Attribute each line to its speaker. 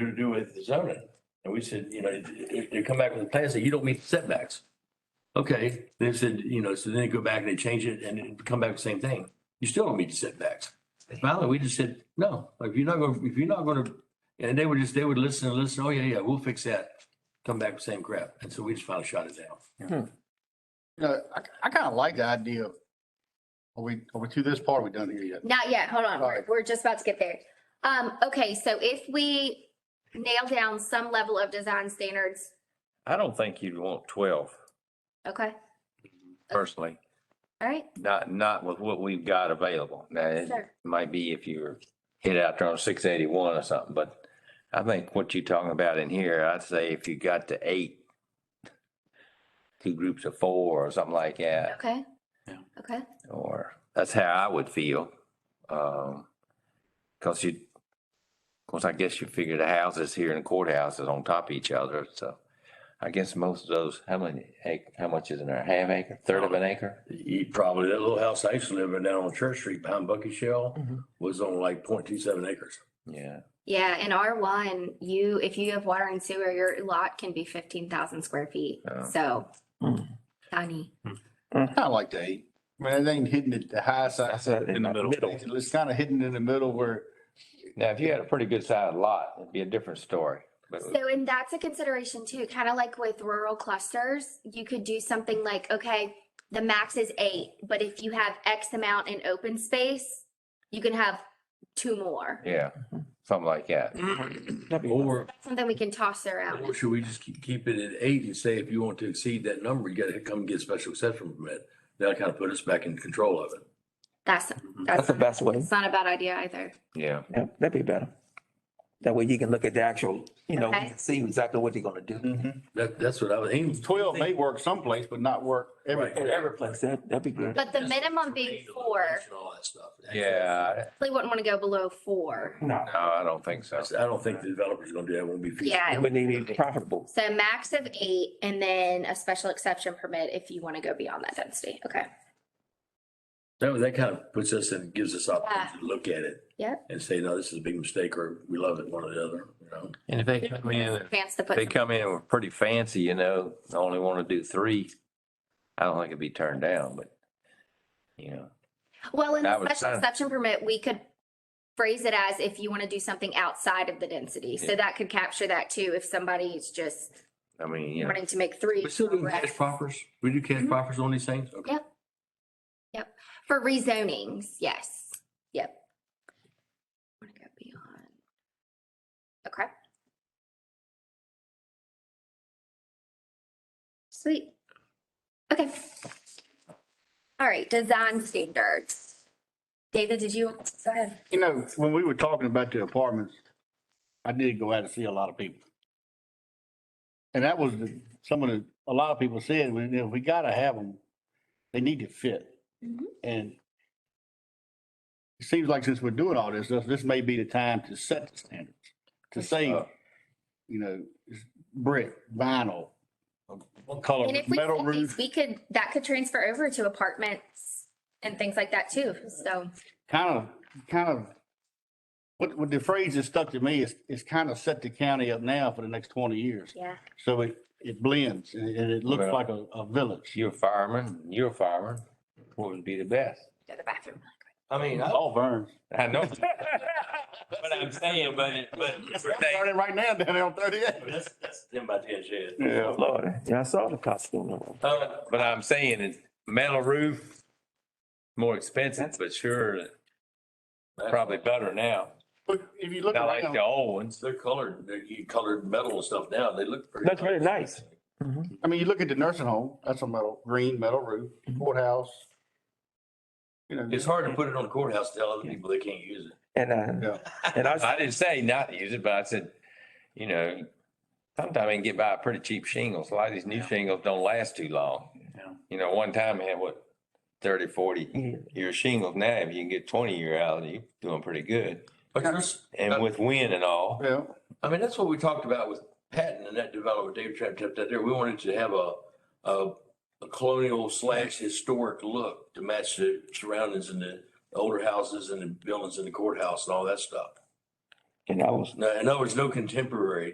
Speaker 1: to do with zoning. And we said, you know, if they come back with a plan, say, you don't meet setbacks. Okay, they said, you know, so then they go back and they change it and it come back with the same thing. You still don't meet the setbacks. And Finally, we just said, no, if you're not going, if you're not going to, and they would just, they would listen and listen, oh, yeah, yeah, we'll fix that. Come back with same crap. And so we just finally shot it down.
Speaker 2: No, I, I kind of like the idea of, are we, are we to this part? Are we done here yet?
Speaker 3: Not yet, hold on, we're,
Speaker 2: Alright.
Speaker 3: we're just about to get there. Um, okay, so if we nail down some level of design standards,
Speaker 4: I don't think you'd want twelve
Speaker 3: okay,
Speaker 4: personally,
Speaker 3: all right,
Speaker 4: not, not with what we've got available. Now, it
Speaker 3: Sure.
Speaker 4: might be if you were hit out there on six eighty-one or something, but I think what you're talking about in here, I'd say if you got to eight, two groups of four or something like that,
Speaker 3: okay?
Speaker 1: Yeah.
Speaker 3: Okay,
Speaker 4: or that's how I would feel. Um, cause you, of course, I guess you figure the houses here and courthouses on top of each other, so. I guess most of those, how many, ac- how much is in there? Half acre, third of an acre?
Speaker 1: He probably, that little house I used to live in down on Church Street behind Bucky Shell was on like 0.27 acres.
Speaker 4: Yeah.
Speaker 3: yeah, in R one, you, if you have water and sewer, your lot can be fifteen thousand square feet,
Speaker 4: Yeah.
Speaker 3: so tiny.
Speaker 4: Hmm.
Speaker 2: Kind of like the eight. I mean, it ain't hitting the, the high side.
Speaker 4: In the middle.
Speaker 2: It's kind of hidden in the middle where,
Speaker 4: Now, if you had a pretty good sized lot, it'd be a different story. But
Speaker 3: So, and that's a consideration too, kind of like with rural clusters, you could do something like, okay, the max is eight, but if you have X amount in open space, you can have two more.
Speaker 4: yeah, something like that.
Speaker 5: Oh,
Speaker 1: Or,
Speaker 3: That's Something we can toss around.
Speaker 1: or should we just keep, keep it at eight and say if you want to exceed that number, you gotta come get special exception permit? That'll kind of put us back in control of it.
Speaker 3: That's,
Speaker 5: That's
Speaker 3: that's,
Speaker 5: the
Speaker 3: not-
Speaker 5: best way.
Speaker 3: it's not a bad idea either.
Speaker 4: Yeah.
Speaker 5: Yeah, that'd be better. That way you can look at the actual, you know,
Speaker 3: Okay.
Speaker 5: see exactly what they're gonna do.
Speaker 4: Mm-hmm.
Speaker 1: That, that's what I was aiming. for.
Speaker 2: twelve may work someplace, but not work
Speaker 1: Right.
Speaker 2: everywhere.
Speaker 5: Every place, that, that'd be good.
Speaker 3: But the minimum being four,
Speaker 1: And all that stuff.
Speaker 4: Yeah.
Speaker 3: we wouldn't want to go below four.
Speaker 5: No,
Speaker 4: No, I don't think so.
Speaker 1: That's- I don't think the developer's gonna do that. It Won't be feasible.
Speaker 3: Yeah.
Speaker 5: but they need profitable.
Speaker 3: So max of eight and then a special exception permit if you want to go beyond that density. Okay.
Speaker 1: That, that kind of puts us and gives us opportunity to look at it.
Speaker 3: Yep.
Speaker 1: And say, no, this is a big mistake or we love it, one or the other, you know?
Speaker 4: And if they come in,
Speaker 3: Advance the
Speaker 4: if they
Speaker 3: put.
Speaker 4: come in with pretty fancy, you know, they only want to do three. I don't think it'd be turned down, but you know,
Speaker 3: Well, in
Speaker 4: That
Speaker 3: the
Speaker 4: was
Speaker 3: special
Speaker 4: kinda-
Speaker 3: exception permit, we could phrase it as if you want to do something outside of the density. So
Speaker 4: Yeah.
Speaker 3: that could capture that too, if somebody's just
Speaker 4: I mean, you know,
Speaker 3: wanting to make three.
Speaker 1: We still do
Speaker 3: correct.
Speaker 1: cash proffers? We do cash
Speaker 3: Mhm.
Speaker 1: proffers on these things? Okay.
Speaker 3: Yep. For rezonings, yes, yep. Want to go beyond. Okay. Sweet. Okay. All right, design standards. David, did you, go ahead.
Speaker 2: You know, when we were talking about the apartments, I did go out and see a lot of people. And that was the- some of the, a lot of people said, we, you know, we gotta have them. They need to fit.
Speaker 3: Mhm.
Speaker 2: And it seems like since we're doing all this, this, this may be the time to set the standards, to say,
Speaker 4: Uh.
Speaker 2: you know, brick, vinyl, what color,
Speaker 3: And if we
Speaker 2: metal
Speaker 3: set these,
Speaker 2: roof,
Speaker 3: we could, that could transfer over to apartments and things like that too, so.
Speaker 2: kind of, kind of. What, what the phrase that stuck to me is, is kind of set the county up now for the next twenty years.
Speaker 3: Yeah.
Speaker 2: So it, it blends and it, and it looks
Speaker 4: Well-
Speaker 2: like a, a village.
Speaker 4: you're a fireman, you're a fireman, what would be the best?
Speaker 3: Go to the bathroom.
Speaker 4: I mean, I
Speaker 2: All Vern's.
Speaker 4: I know. But I'm saying, but, it- but.
Speaker 2: Starting right now down there on thirty-eight.
Speaker 1: That's, that's ten by ten shed.
Speaker 2: Yeah.
Speaker 5: Lord, yeah, I saw the costume.
Speaker 4: Uh, But I'm saying it's metal roof, more expensive, but sure, probably better now.
Speaker 2: But if you look
Speaker 4: Not like
Speaker 2: around,
Speaker 4: the old ones.
Speaker 1: They're colored, they're you colored metal and stuff now. They look pretty.
Speaker 5: That's really nice. Mhm.
Speaker 2: I mean, you look at the nursing home, that's a metal, green metal roof, courthouse. You know,
Speaker 1: It's hard to put it on the courthouse, to tell other people they can't use it.
Speaker 5: And, uh,
Speaker 2: yeah,
Speaker 5: and I,
Speaker 4: I didn't say not to use it, but I said, you know, sometimes I can get by pretty cheap shingles. A lot of these new shingles don't last too long.
Speaker 2: Yeah.
Speaker 4: You know, one time I had what, thirty, forty
Speaker 5: yeah,
Speaker 4: year shingles. Now, if you can get twenty year out, you're doing pretty good.
Speaker 1: But there's,
Speaker 4: And with wind and all.
Speaker 2: yeah.
Speaker 1: I mean, that's what we talked about with Patton and that developer, David Trapp, Trapp, that there, we wanted to have a, a a colonial slash historic look to match the surroundings and the older houses and the buildings and the courthouse and all that stuff.
Speaker 5: And I was
Speaker 1: No, in other words, no contemporary